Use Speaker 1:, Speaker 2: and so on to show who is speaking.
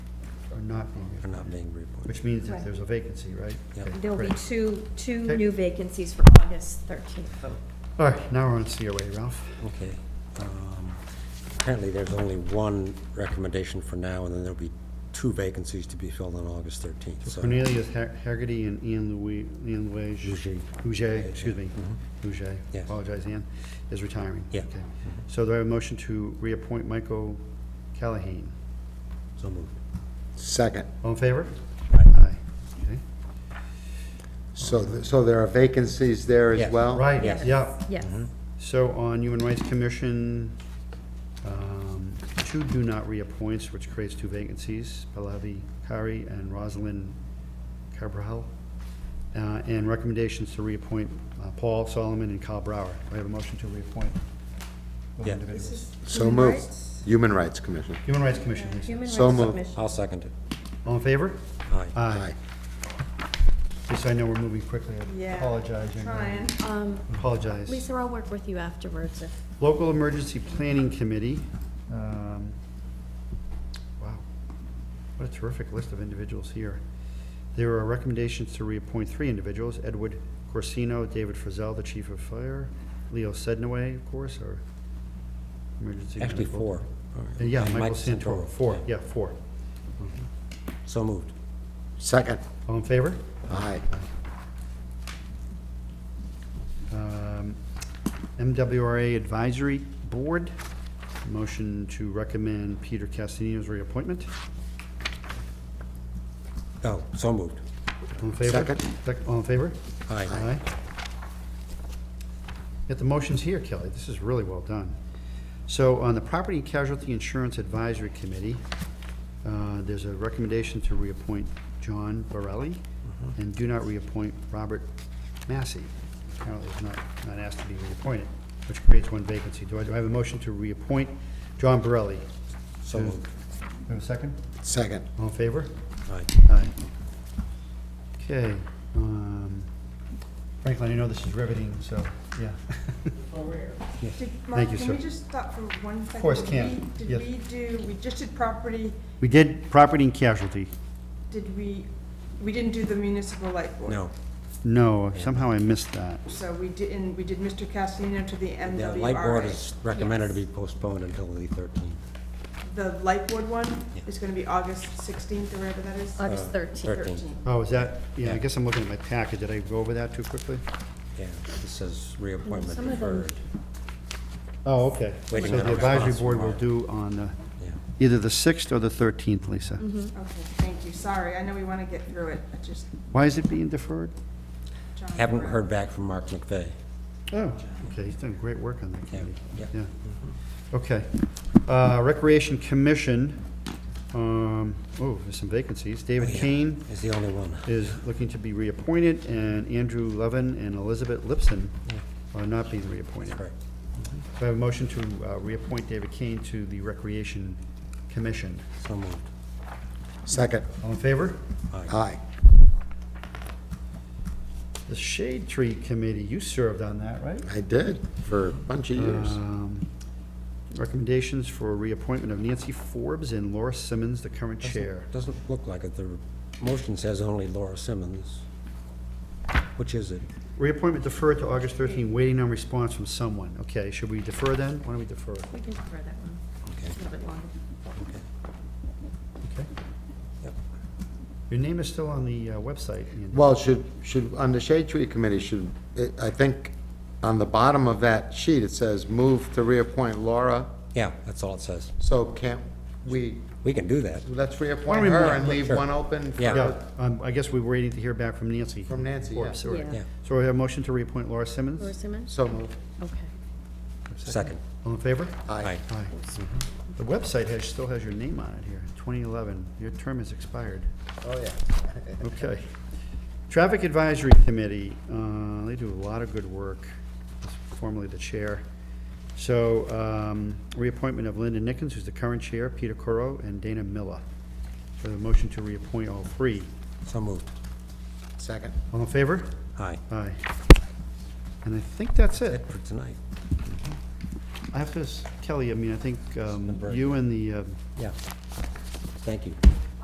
Speaker 1: are not being
Speaker 2: are
Speaker 1: reappointed,
Speaker 2: not being reappointed.
Speaker 1: which means that
Speaker 3: Right.
Speaker 1: there's a vacancy, right?
Speaker 2: Yep.
Speaker 1: Okay,
Speaker 3: There'll be
Speaker 1: great.
Speaker 3: two, two
Speaker 1: Okay.
Speaker 3: new vacancies for August 13th vote.
Speaker 1: All right, now we're on COA, Ralph.
Speaker 2: Okay. um, Apparently, there's only one recommendation for now, and then there'll be two vacancies to be filled on August 13th, so.
Speaker 1: Cornelius Har- Hagerty and Ian Louis, Ian Luige.
Speaker 2: Bougie.
Speaker 1: Bouger, excuse me, Bouger,
Speaker 2: Mm-hmm. Yes.
Speaker 1: apologize, Ian, is retiring.
Speaker 2: Yeah.
Speaker 1: Okay. So do I have a motion to reappoint Michael Callahan?
Speaker 2: So moved.
Speaker 4: Second.
Speaker 1: All in favor?
Speaker 2: Aye.
Speaker 1: Okay.
Speaker 4: So, th- so there are vacancies there as
Speaker 2: Yes.
Speaker 4: well?
Speaker 1: Right,
Speaker 2: Oh, Yes.
Speaker 1: yeah.
Speaker 3: Yes.
Speaker 1: So on Human Rights Commission, um, two do not reappoints, which creates two vacancies, Pallavi Kari and Rosalind Cabral. Uh, And recommendations to reappoint uh, Paul Solomon and Kyle Brower. Do I have a motion to reappoint those
Speaker 2: Yeah.
Speaker 1: individuals?
Speaker 4: So
Speaker 3: Human
Speaker 4: moved.
Speaker 3: rights?
Speaker 4: Human Rights Commission.
Speaker 1: Human Rights Commission, please.
Speaker 3: Human
Speaker 4: So
Speaker 3: Rights
Speaker 4: moved.
Speaker 3: Commission.
Speaker 2: I'll second it.
Speaker 1: All in favor?
Speaker 2: Aye.
Speaker 1: Aye. Lisa, I know we're moving quickly. I
Speaker 3: Yeah,
Speaker 1: apologize. young
Speaker 3: Trying.
Speaker 1: lady.
Speaker 5: Um,
Speaker 1: Apologize.
Speaker 5: Lisa, I'll work with you afterwards if
Speaker 1: Local Emergency Planning Committee. um, Wow, what a terrific list of individuals here. There are recommendations to reappoint three individuals, Edward Corsino, David Frizell, the Chief of Fire, Leo Sednaway, of course, our emergency.
Speaker 2: Actually,
Speaker 1: medical-
Speaker 2: four.
Speaker 1: Uh, Yeah,
Speaker 2: And
Speaker 1: Michael Santoro, four, yeah, four.
Speaker 2: So moved.
Speaker 4: Second.
Speaker 1: All in favor?
Speaker 4: Aye.
Speaker 1: Um, MWRA Advisory Board, motion to recommend Peter Castellino's reappointment.
Speaker 2: Oh, so moved.
Speaker 1: All in favor?
Speaker 4: Second.
Speaker 1: Sec- All in favor?
Speaker 2: Aye.
Speaker 1: Aye. Get the motions here, Kelly. This is really well done. So on the Property and Casualty Insurance Advisory Committee, uh, there's a recommendation to reappoint John Borelli and do not reappoint Robert Massey. Apparently he's not, not asked to be reappointed, which creates one vacancy. Do I, do I have a motion to reappoint John Borelli?
Speaker 2: So moved.
Speaker 1: Have a second?
Speaker 4: Second.
Speaker 1: All in favor?
Speaker 2: Aye.
Speaker 1: Aye. Okay. um, Franklin, I know this is riveting, so, yeah.
Speaker 6: Did-
Speaker 1: Thank
Speaker 6: Mark,
Speaker 1: you,
Speaker 6: can we
Speaker 1: sir.
Speaker 6: just stop for one second?
Speaker 1: course,
Speaker 6: Did
Speaker 1: can.
Speaker 6: we-
Speaker 1: Yes.
Speaker 6: Did we do, we just did property,
Speaker 1: We did property and casualty.
Speaker 6: did we, we didn't do the municipal light board?
Speaker 2: No.
Speaker 1: No, somehow I missed that.
Speaker 6: So we didn't, we did Mr. Castellino to the
Speaker 2: The light board
Speaker 6: MWRA.
Speaker 2: is recommended to be postponed until the 13th.
Speaker 6: The light board one
Speaker 2: Yeah.
Speaker 6: is gonna be August sixteenth or whatever that is?
Speaker 5: August
Speaker 2: Uh,
Speaker 5: 13th.
Speaker 2: 13th.
Speaker 1: Oh, is that, yeah, I guess I'm looking at my packet. Did I go over that too quickly?
Speaker 2: Yeah, it says reappointment
Speaker 5: Some of them-
Speaker 2: deferred.
Speaker 1: Oh, okay. So
Speaker 2: Waiting on
Speaker 1: the
Speaker 2: a
Speaker 1: advisory
Speaker 2: response from
Speaker 1: board will
Speaker 2: Mark.
Speaker 1: do on the,
Speaker 2: Yeah.
Speaker 1: either the 6th or the 13th, Lisa.
Speaker 6: Okay, thank you, sorry, I know we wanna get through it, I just,
Speaker 1: Why is it being deferred?
Speaker 6: John.
Speaker 2: Haven't heard back from Mark McVeigh.
Speaker 1: Oh, okay, he's done great work on that committee.
Speaker 2: Yeah, yeah.
Speaker 1: Yeah. Okay. Uh, Recreation Commission, um, oh, there's some vacancies. David
Speaker 2: Oh, Yeah,
Speaker 1: Kane
Speaker 2: Is the only one.
Speaker 1: is looking to be reappointed, and Andrew Levin and Elizabeth Lipson are not being reappointed.
Speaker 2: Correct.
Speaker 1: Do I have a motion to uh, reappoint David Kane to the Recreation Commission?
Speaker 2: So moved.
Speaker 4: Second.
Speaker 1: All in favor?
Speaker 2: Aye.
Speaker 4: Aye.
Speaker 1: The Shade Tree Committee, you served on that, right?
Speaker 4: I did for a bunch of years.
Speaker 1: Um, Recommendations for reappointment of Nancy Forbes and Laura Simmons, the current chair.
Speaker 2: Doesn't look like it. The motion says only Laura Simmons. Which is it?
Speaker 1: Reappointment deferred to August 13, waiting on response from someone. Okay, should we defer then? Why don't we defer?
Speaker 5: We can defer that one
Speaker 2: Okay,
Speaker 5: a little bit longer.
Speaker 2: okay.
Speaker 1: Okay.
Speaker 2: Yep.
Speaker 1: Your name is still on the uh, website. Ian.
Speaker 4: Well, should, should, on the Shade Tree Committee, should, it- I think on the bottom of that sheet, it says move to reappoint Laura.
Speaker 2: Yeah, that's all it says.
Speaker 4: So can't we,
Speaker 2: We can do that.
Speaker 4: let's
Speaker 1: Why
Speaker 4: reappoint
Speaker 1: don't we move-
Speaker 4: her and leave
Speaker 2: Sure.
Speaker 4: one open for
Speaker 2: Yeah.
Speaker 1: Yeah, um, I guess we're waiting to hear back from Nancy.
Speaker 4: From Nancy, yeah.
Speaker 1: Forbes, sorry.
Speaker 5: Yeah.
Speaker 2: Yeah,
Speaker 1: So we have a motion to reappoint Laura Simmons?
Speaker 5: Laura Simmons?
Speaker 4: So moved.
Speaker 5: Okay.
Speaker 2: second.
Speaker 1: All in favor?
Speaker 4: Aye.
Speaker 2: Aye.
Speaker 1: Aye. The website has, still has your name on it here, 2011. Your term has expired.
Speaker 4: Oh, yeah.
Speaker 1: Okay. Traffic Advisory Committee, uh, they do a lot of good work, formerly the chair. So um, reappointment of Linda Nickens, who's the current chair, Peter Coro, and Dana Miller. So the motion to reappoint all three.
Speaker 2: So moved.
Speaker 4: Second.
Speaker 1: All in favor?
Speaker 2: Aye.
Speaker 1: Aye. And I think that's it.
Speaker 2: It for tonight.
Speaker 1: I have to, s- Kelly, I mean, I think um,
Speaker 2: Burke.
Speaker 1: you and the, uh,
Speaker 2: Yeah. Thank you.